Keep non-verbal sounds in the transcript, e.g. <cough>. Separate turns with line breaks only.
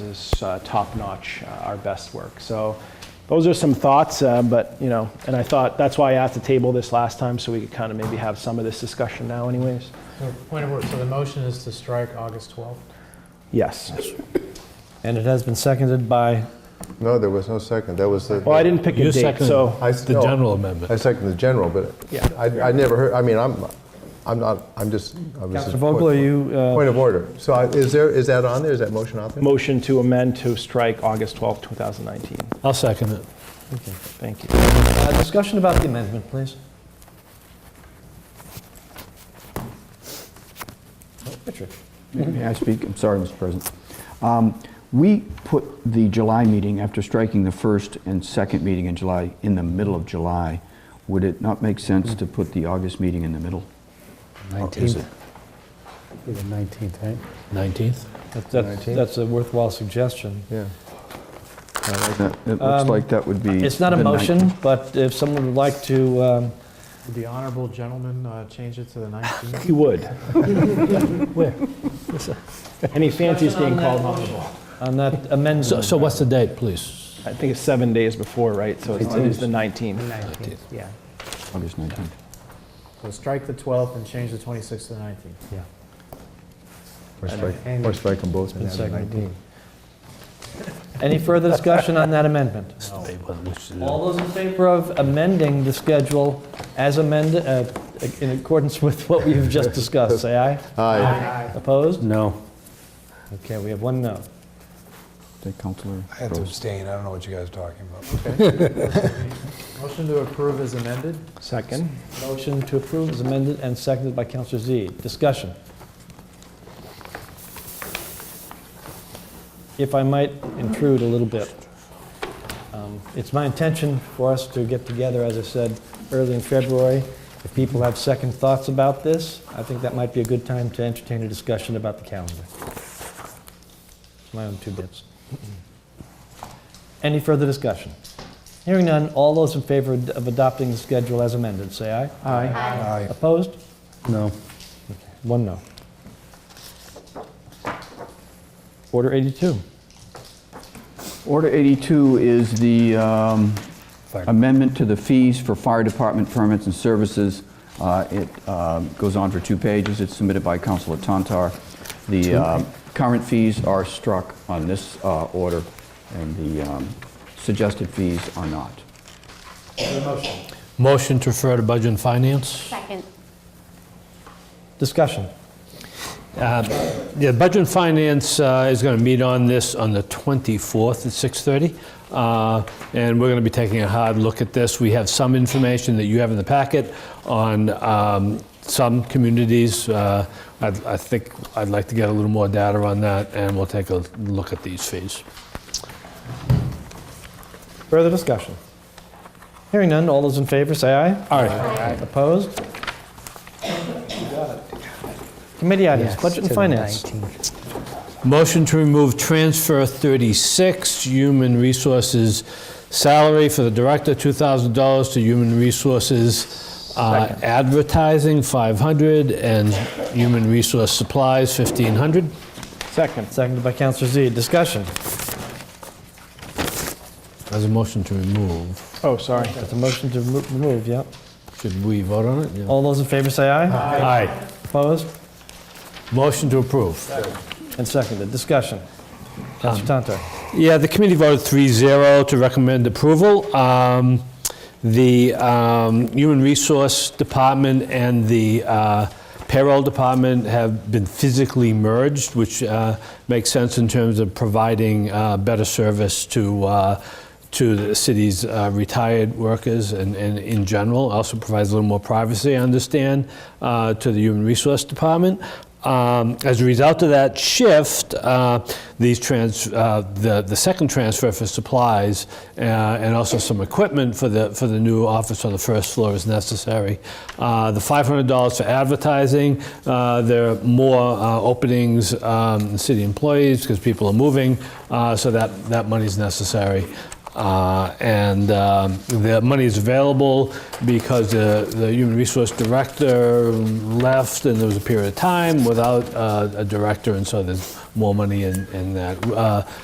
is uh, top-notch, uh, our best work. So those are some thoughts, uh, but, you know, and I thought, that's why I asked to table this last time, so we could kind of maybe have some of this discussion now anyways.
So, Point of order, so the motion is to strike August 12th?
Yes.
And it has been seconded by,
No, there was no second. That was the.
Well, I didn't pick a
You
date,
seconded
so,
I-
the
no,
general amendment.
I second the general, but
Yeah.
I, I never heard, I mean, I'm, I'm not, I'm just. I was
Mr.
just-
Vogel, are you, uh,
Point of order. So I- is there, is that on there? Is that motion on there?
motion to amend to strike August 12th, 2019.
I'll second it.
Thank you.
uh, discussion about the amendment, please? Richard?
May I speak? I'm sorry, Mr. President. Um, We put the July meeting, after striking the first and second meeting in July, in the middle of July. Would it not make sense to put the August meeting in the middle? Is it?
19th. Be the 19th, right?
19th?
That- That's that's a worthwhile suggestion.
Yeah.
That- It
Um,
looks like that would be...
It's not a
the ninth.
motion, but if someone would like to, um,
Would the honorable gentleman uh, change it to the 19th?
You
<laughs>
would. Any fancies being called honorable.
on that
So
amendment.
so what's the date, please?
I think it's seven days before, right? So it's it is the 19th.
19th, yeah.
August 19th.
So strike the 12th and change the 26th to the 19th.
Yeah.
Or strike,
And-
or strike them both. and
Been
add the
seconded.
19.
Any further discussion on that amendment?
Date, well, which is-
All those in favor of amending the schedule as amended, uh, in accordance with what we've just discussed, say aye.
Aye.
Opposed?
No.
Okay, we have one no.
Take Counselor
I have to
Groves.
abstain, I don't know what you guys are talking about.
Motion to approve is amended?
Second.
Motion to approve is amended and seconded by Counselor Z. Discussion. If I might intrude a little bit. um, It's my intention for us to get together, as I said, early in February. If people have second thoughts about this, I think that might be a good time to entertain a discussion about the calendar. My own two bits. Any further discussion? Hearing none, all those in favor of adopting the schedule as amended, say aye.
Aye.
Aye.
Opposed?
No.
One no. Order 82.
Order 82 is the um, amendment to the fees for fire department permits and services. Uh, It um, goes on for two pages. It's submitted by Councilor Tantar. The um, current fees are struck on this uh, order, and the um, suggested fees are not.
Motion to refer to Budget and Finance?
Second.
Discussion.
Uh, Yeah, Budget and Finance uh, is going to meet on this on the 24th at 6:30. uh, And we're going to be taking a hard look at this. We have some information that you have in the packet on um, some communities. Uh, I'd- I think, I'd like to get a little more data on that, and we'll take a look at these fees.
Further discussion. Hearing none, all those in favor, say aye. Aye. Opposed? Committee items, budget and finance.
Motion to remove transfer 36, Human Resources salary for the director, $2,000 to Human Resources uh, advertising, 500, and Human Resource supplies, 1,500.
Second.
Seconded by Counselor Z. Discussion.
As a motion to remove.
Oh, sorry.
That's a motion to remo- remove, yep.
Should we vote on it? Yeah.
All those in favor, say aye.
Aye.
Opposed?
Motion to approve.
And seconded. Discussion. Counselor Tantar.
Yeah, the committee voted 3-0 to recommend approval. Um, The um, Human Resource Department and the uh, Payroll Department have been physically merged, which uh, makes sense in terms of providing uh, better service to uh, to the city's uh, retired workers and, and in general. Also provides a little more privacy, I understand, uh, to the Human Resource Department. Um, as a result of that shift, uh, these trans, uh, the, the second transfer for supplies uh, and also some equipment for the, for the new office on the first floor is necessary. Uh, the $500 for advertising, uh, there are more uh, openings, um, city employees, because people are moving, uh, so that, that money's necessary. Uh, And um, the money is available because the the Human Resource Director left, and there was a period of time without uh, a director, and so there's more money in in that. Uh,